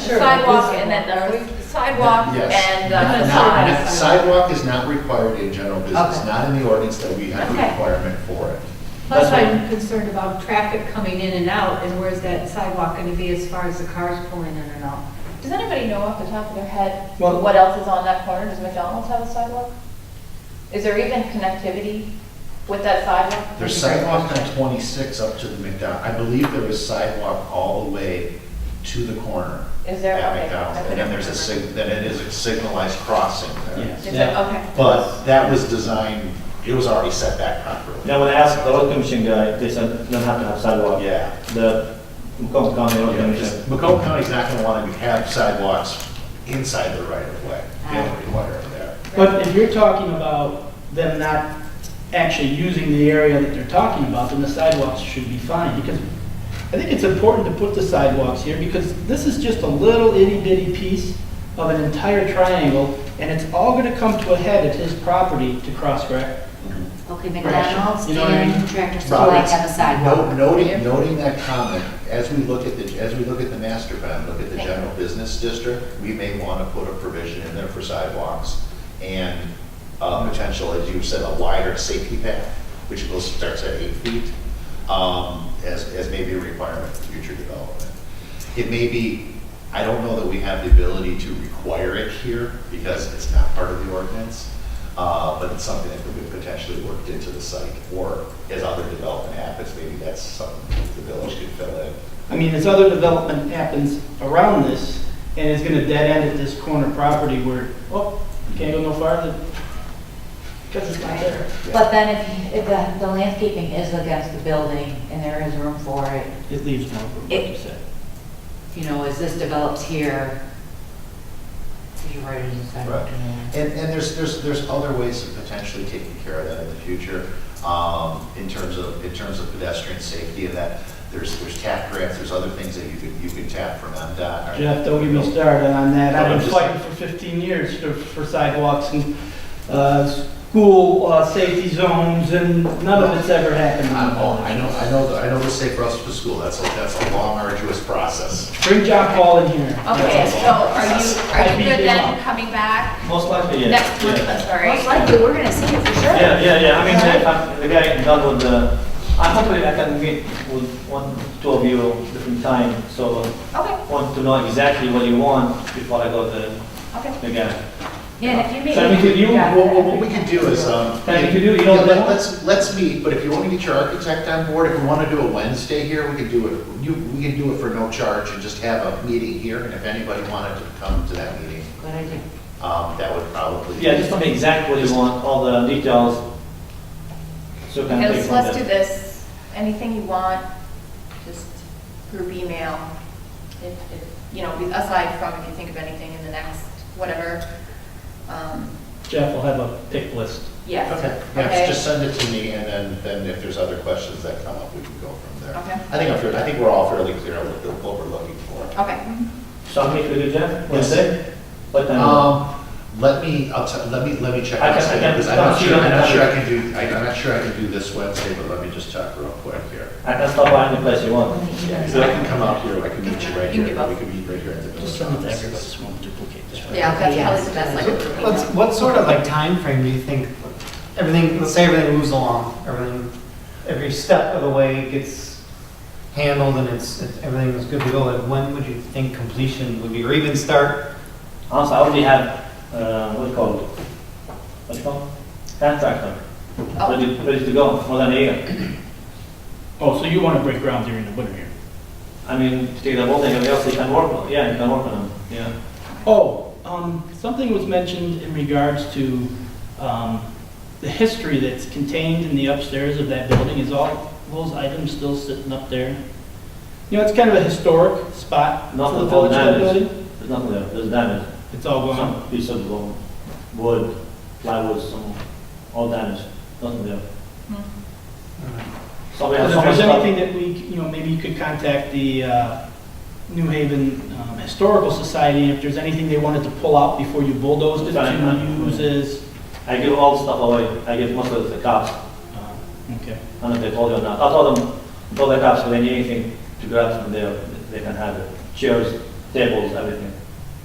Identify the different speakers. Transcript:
Speaker 1: sure.
Speaker 2: sidewalk and then, or sidewalk
Speaker 3: Yes.
Speaker 2: and
Speaker 3: Not-
Speaker 2: uh,
Speaker 3: not-
Speaker 2: facade.
Speaker 3: not- Sidewalk is not required in general business,
Speaker 1: Okay.
Speaker 3: not in the ordinance that we have the
Speaker 2: Okay.
Speaker 3: requirement for it.
Speaker 1: Plus,
Speaker 3: That's
Speaker 1: I'm concerned about traffic coming in and out, and where's that sidewalk gonna be as far as the cars pulling in and out?
Speaker 2: Does anybody know off the top of their head
Speaker 4: Well-
Speaker 2: what else is on that corner? Does McDonald's have a sidewalk? Is there even connectivity with that sidewalk?
Speaker 3: There's sidewalk on 26 up to the McDonald, I believe there is sidewalk all the way to the corner
Speaker 2: Is there?
Speaker 3: at
Speaker 2: Okay,
Speaker 3: McDonald's.
Speaker 2: I
Speaker 3: And then there's a,
Speaker 2: couldn't
Speaker 3: sig- then it is a signalized crossing there.
Speaker 4: Yes.
Speaker 2: remember. Is there- okay.
Speaker 3: But that was designed, it was already set back properly.
Speaker 4: Now, when I asked the road commission guy, they said, don't have to have sidewalk.
Speaker 3: Yeah.
Speaker 4: The Macomb County Road
Speaker 3: Yeah,
Speaker 4: Commission.
Speaker 3: because Macomb County's not gonna want to have sidewalks inside the right of way. They don't
Speaker 2: Ah.
Speaker 3: require it there.
Speaker 5: But if you're talking about them not actually using the area that they're talking about, then the sidewalks should be fine, because I think it's important to put the sidewalks here, because this is just a little itty bitty piece of an entire triangle, and it's all gonna come to a head at his property to cross rec.
Speaker 6: Okay, McDonald's
Speaker 5: McDonald's You know what I mean? and
Speaker 6: and Tractor Supply
Speaker 3: Roberts,
Speaker 6: have a
Speaker 3: no-
Speaker 6: sidewalk.
Speaker 3: Noting, noting that comment, as we look at the, as we look at the master plan, look at the general business district, we may want to put a provision in there for sidewalks and uh, potential, as you said, a wider safety path, which goes, starts at eight feet, um, as, as maybe a requirement for future development. It may be, I don't know that we have the ability to require it here because it's not part of the ordinance, uh, but it's something that could be potentially worked into the site. Or as other development happens, maybe that's something the village could fill in.
Speaker 5: I mean, as other development happens around this, and it's gonna dead end at this corner property where, oh, can't go no farther, because it's not there.
Speaker 6: But then if, if the, the landscaping is against the building and there is room for it,
Speaker 5: It leaves no room, like you said.
Speaker 6: you know, as this develops here, you're right, it's a sidewalk.
Speaker 3: Right.
Speaker 6: in there.
Speaker 3: And, and there's, there's, there's other ways of potentially taking care of that in the future, um, in terms of, in terms of pedestrian safety and that. There's, there's tap grants, there's other things that you could, you could tap from MDOT. or-
Speaker 5: Jeff, don't get me started on that.
Speaker 3: No, I'm
Speaker 5: I've been
Speaker 3: just-
Speaker 5: fighting for 15 years for- for sidewalks and uh, school uh, safety zones, and none of it's ever happened.
Speaker 3: I'm all, I know, I know, the- I know the safe routes for school, that's a, that's a long arduous process.
Speaker 5: Bring John Paul in here.
Speaker 2: Okay, so are you, are
Speaker 5: I'd
Speaker 2: you
Speaker 5: be
Speaker 2: good
Speaker 5: down.
Speaker 2: then coming back
Speaker 4: Most likely, yeah.
Speaker 2: next month?
Speaker 4: yeah.
Speaker 2: I'm sorry.
Speaker 6: Most likely, we're gonna see it for sure.
Speaker 4: Yeah, yeah, yeah, I mean, the- uh, the guy done with the, I'm hopefully uh, I can meet with one, two of you different time, so
Speaker 2: Okay,
Speaker 4: want to know exactly what you want before I go to
Speaker 2: okay.
Speaker 4: the guy.
Speaker 6: Yeah, and if you meet.
Speaker 4: Send me to you,
Speaker 6: Yeah.
Speaker 3: Well, well, what we can do is, um.
Speaker 4: Can you do- you know,
Speaker 3: yeah, let-
Speaker 4: demo?
Speaker 3: Let's, let's meet, but if you want to get your architect on board, if we want to do a Wednesday here, we can do it, you, we can do it for no charge and just have a meeting here, and if anybody wanted to come to that meeting,
Speaker 6: Good idea.
Speaker 3: um, that would probably.
Speaker 4: Yeah, just tell me exactly what you want, all the details. So can
Speaker 2: Okay,
Speaker 4: I take
Speaker 2: let's,
Speaker 4: from
Speaker 2: let's
Speaker 4: there.
Speaker 2: do this. Anything you want, just group email. If, if, you know, aside from if you think of anything in the next, whatever. Um,
Speaker 5: Jeff will have a pick list.
Speaker 2: yes.
Speaker 3: Okay, yeah, just send it to me, and then, then if there's other questions that come up, we can go from there.
Speaker 2: Okay.
Speaker 3: I think I'm, fair- I think we're all fairly clear on what the- what we're looking for.
Speaker 2: Okay.
Speaker 4: So I'll meet with you, Jeff,
Speaker 3: Yes.
Speaker 4: Wednesday? What
Speaker 5: Uh,
Speaker 4: time?
Speaker 3: Um, let me, I'll tell, let me, let me check.
Speaker 4: I can- I
Speaker 3: Wednesday,
Speaker 4: can-
Speaker 3: because I'm not
Speaker 4: I'll see
Speaker 3: sure,
Speaker 4: you
Speaker 3: I'm not
Speaker 4: on
Speaker 3: sure I can do, I- I'm not sure I can do this Wednesday, but let me just check real quick here.
Speaker 4: I can stop by any place you want.
Speaker 3: So I can come out here, I can meet you
Speaker 2: You can
Speaker 3: right here,
Speaker 2: give up.
Speaker 3: we can meet right here at the.
Speaker 5: Just send it to everybody, so we won't duplicate this. one.
Speaker 2: Yeah, that's probably the best, like. group email.
Speaker 7: What's, what sort of like time frame do you think, everything, let's say everything moves along, everything, every step of the way gets handled and it's, it- everything is good to go, and when would you think completion would be, or even start?
Speaker 4: Also, Ah, I already have, uh, what do you call it? What do you call it? Contractor,
Speaker 2: Oh,
Speaker 4: ready, ready to go for than a year.
Speaker 5: Oh, so you want to break ground during the winter here?
Speaker 4: I mean, to take the whole thing, else you can work on, yeah, you can work on them, yeah.
Speaker 5: Oh, um, something was mentioned in regards to, um, the history that's contained in the upstairs of that building. Is all those items still sitting up there? You know, it's kind of a historic spot
Speaker 4: Not
Speaker 5: for the
Speaker 4: the whole
Speaker 5: village, that
Speaker 4: damage.
Speaker 5: building.
Speaker 4: There's nothing there, there's damage.
Speaker 5: It's all gone.
Speaker 4: Some piece of um, wood, plywood, some, all damage, nothing there.
Speaker 2: Hmm.
Speaker 4: Somebody
Speaker 5: If
Speaker 4: has
Speaker 5: there's anything
Speaker 4: something.
Speaker 5: that we, you know, maybe you could contact the uh, New Haven um, Historical Society, if there's anything they wanted to pull out before you bulldozed it,
Speaker 4: Fine,
Speaker 5: to
Speaker 4: huh?
Speaker 5: use as,
Speaker 4: I give all the stuff away, I give most of it to the cops,
Speaker 5: uh, okay.
Speaker 4: I don't know if they told you or not. I told them, told the cops, if they need anything to grab from there, they can have it. Chairs, tables, everything.